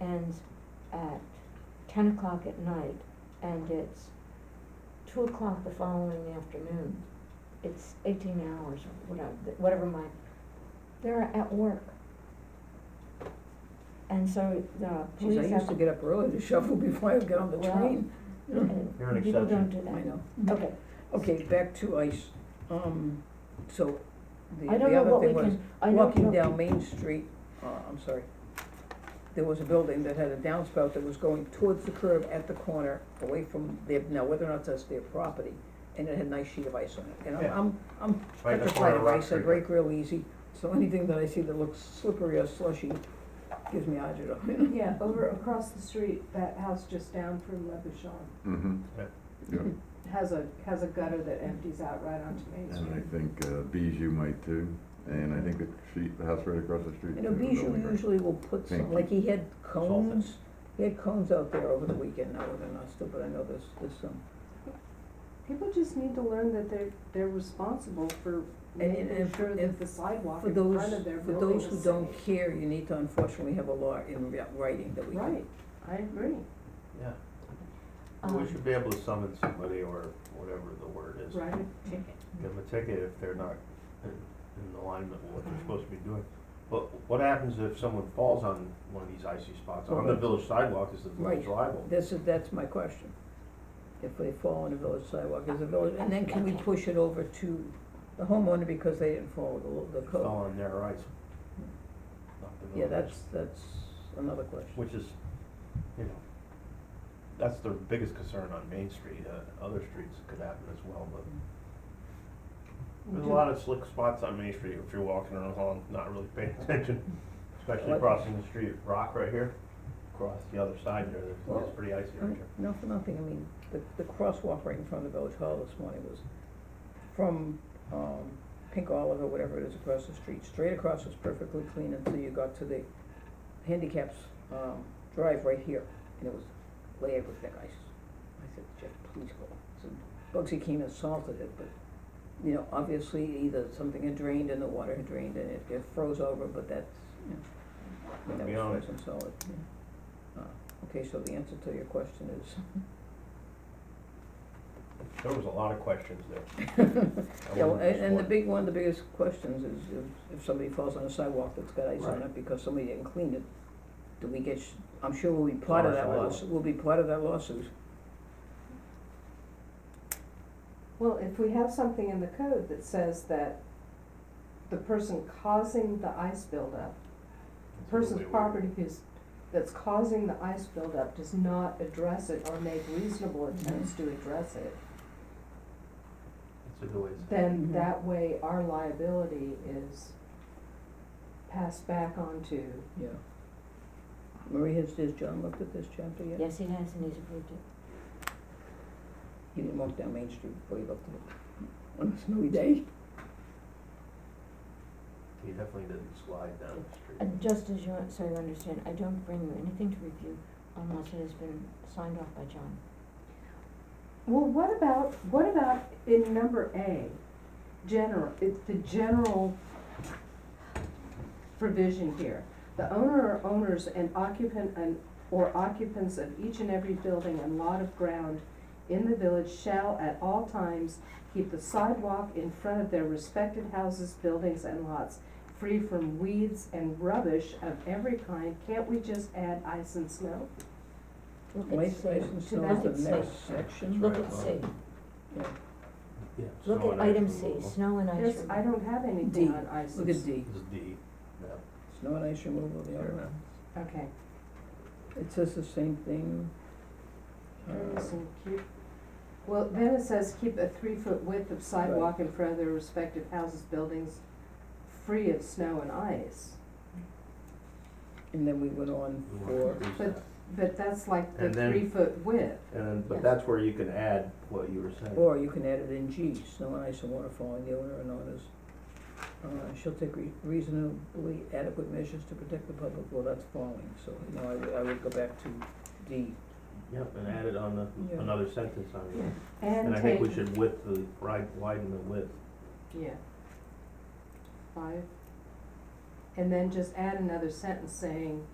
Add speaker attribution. Speaker 1: ends at ten o'clock at night and it's two o'clock the following afternoon, it's eighteen hours or whatever, whatever my, they're at work. And so the
Speaker 2: Geez, I
Speaker 1: police
Speaker 2: used
Speaker 1: have
Speaker 2: to
Speaker 1: to.
Speaker 2: get up early to shovel before I would get on the
Speaker 1: Well,
Speaker 2: train.
Speaker 1: and
Speaker 3: You're an
Speaker 1: People don't
Speaker 3: exception.
Speaker 1: do
Speaker 2: I
Speaker 1: that.
Speaker 2: know.
Speaker 1: Okay,
Speaker 2: Okay, back to ice. Um, so the,
Speaker 1: I don't
Speaker 2: the
Speaker 1: know
Speaker 2: other
Speaker 1: what we
Speaker 2: thing was,
Speaker 1: can, I don't know.
Speaker 2: walking down Main Street, uh, I'm sorry. There was a building that had a downspout that was going towards the curb at the corner, away from their, now whether or not that's their property, and it had a nice sheet of ice on it. And I'm,
Speaker 3: Yeah.
Speaker 2: I'm, I'm
Speaker 3: Right in the corner
Speaker 2: petrified
Speaker 3: of
Speaker 2: of
Speaker 3: Rock
Speaker 2: ice, I
Speaker 3: Creek.
Speaker 2: break real easy, so anything that I see that looks slippery or slushy gives me agita.
Speaker 4: Yeah, over across the street, that house just down from Le Bouchon
Speaker 5: Mm-hmm,
Speaker 4: has a, has a gutter that empties out right onto Main
Speaker 5: and I
Speaker 4: Street.
Speaker 5: think uh, Bijou might too, and I think the street, the house right across the street.
Speaker 2: You know,
Speaker 5: too, the
Speaker 2: Bijou
Speaker 5: building right-
Speaker 2: usually will put
Speaker 5: Thank
Speaker 2: some,
Speaker 5: you.
Speaker 2: like he had
Speaker 3: all
Speaker 2: cones, he had cones out there over the weekend, now they're not still, but I know there's, there's some.
Speaker 4: People just need to learn that they're, they're responsible for
Speaker 2: and-
Speaker 4: making
Speaker 2: and for-
Speaker 4: sure
Speaker 2: and
Speaker 4: that the sidewalk
Speaker 2: For
Speaker 4: in front
Speaker 2: those,
Speaker 4: of their
Speaker 2: for
Speaker 4: building
Speaker 2: those who
Speaker 4: is
Speaker 2: don't
Speaker 4: safe.
Speaker 2: care, you need to unfortunately have a law in ri- writing that we can.
Speaker 4: Right, I agree.
Speaker 3: Yeah, we
Speaker 1: um,
Speaker 3: should be able to summon somebody or whatever the word is.
Speaker 4: Write a ticket.
Speaker 3: Give them a ticket if they're not in, in alignment with what they're supposed to be doing. But what happens if someone falls on one of these icy spots, on the
Speaker 2: Right.
Speaker 3: village sidewalk, is the village
Speaker 2: Right.
Speaker 3: liable?
Speaker 2: This is, that's my question. If they fall on the village sidewalk, is the village, and then can we push it over to the homeowner because they didn't follow the, lo- the
Speaker 3: Fell
Speaker 2: code?
Speaker 3: on their ice. Not the
Speaker 2: Yeah,
Speaker 3: village's.
Speaker 2: that's, that's another question.
Speaker 3: Which is, you know, that's the biggest concern on Main Street, uh, other streets could happen as well, but There's a lot of slick spots on Main Street if you're walking along, not really paying attention, especially
Speaker 2: What?
Speaker 3: crossing the street, Rock right here, across the other side there, there's-
Speaker 2: Well, mm.
Speaker 3: it's pretty icy right here.
Speaker 2: No, for nothing, I mean, the, the crosswalk right in front of the village hall this morning was from, um, Pink Olive or whatever it is across the street, straight across was perfectly clean until you got to the handicaps, um, drive right here, and it was layered with thick ice. I said, Jeff, please go. So Bugsy came and salted it, but, you know, obviously either something had drained and the water had drained and it, it froze over, but that's, you know, I mean, that
Speaker 3: Beyond.
Speaker 2: was frozen solid, yeah. Uh, Okay, so the answer to your question is
Speaker 3: There was a lot of questions there.
Speaker 2: Yeah, well, and, and the big, one of the biggest questions is if, if somebody falls on a sidewalk that's got ice on
Speaker 3: Right.
Speaker 2: it because somebody didn't clean it, do we get, sh- I'm sure we'll be part of
Speaker 3: our
Speaker 2: that
Speaker 3: sidewalk.
Speaker 2: lawsuit, we'll be part of that lawsuit.
Speaker 4: Well, if we have something in the code that says that the person causing the ice buildup The person's property is, that's causing the ice buildup does not address it or make reasonable attempts to address it,
Speaker 3: It's a good way to say
Speaker 4: then
Speaker 2: Mhm.
Speaker 4: that way our liability is passed back on to,
Speaker 2: Yeah. Marie, has, has John looked at this chapter yet?
Speaker 1: Yes, he has and he's approved it.
Speaker 2: He didn't walk down Main Street before he looked at it on a snowy day.
Speaker 3: it. He definitely didn't slide down the street.
Speaker 1: And Uh, just as you, so you understand, I don't bring you anything to review unless it has been signed off by John.
Speaker 4: well, what about, what about in number A? General, it's the general provision here. The owner or owners and occupant and, or occupants of each and every building and lot of ground in the village shall at all times keep the sidewalk in front of their respected houses, buildings, and lots free from weeds and rubbish of every kind. Can't we just add ice and snow?
Speaker 1: Look at
Speaker 2: Waste,
Speaker 1: C.
Speaker 2: ice and
Speaker 1: To
Speaker 2: snow
Speaker 1: that
Speaker 2: is the
Speaker 1: extent.
Speaker 2: next section.
Speaker 1: Look
Speaker 3: Right
Speaker 1: at
Speaker 3: above.
Speaker 1: C,
Speaker 2: Yeah.
Speaker 3: Yeah,
Speaker 1: look
Speaker 3: snow
Speaker 1: at
Speaker 3: and ice
Speaker 1: item C,
Speaker 3: removal.
Speaker 1: snow and ice removal.
Speaker 4: There's, I don't have
Speaker 2: D.
Speaker 4: anything on ice
Speaker 2: Look
Speaker 4: and
Speaker 2: at
Speaker 4: snow.
Speaker 2: D,
Speaker 3: This is D, yeah.
Speaker 2: snow and ice removal, the other one.
Speaker 4: Okay,
Speaker 2: It says the same thing. Uh,
Speaker 4: Terms and keep, well, then it says keep a three-foot width of sidewalk in front of their respective houses, buildings, free of snow and ice.
Speaker 2: And then we went on
Speaker 3: We want to
Speaker 2: for,
Speaker 3: reduce
Speaker 4: But-
Speaker 3: that.
Speaker 4: But that's like the
Speaker 3: And then-
Speaker 4: three-foot width.
Speaker 3: And then, but
Speaker 1: Yes.
Speaker 3: that's where you can add what you were saying.
Speaker 2: or you can add it in G, snow and ice and water falling, the owner and owners. Uh, shall take re- reasonably adequate measures to protect the public, well, that's falling, so, you know, I would, I would go back to D.
Speaker 3: Yep, and add it on the,
Speaker 2: Yeah.
Speaker 3: another sentence on it.
Speaker 4: And
Speaker 3: And I
Speaker 4: take,
Speaker 3: think we should width the, right, widen the width.
Speaker 4: yeah. Five. And then just add another sentence saying,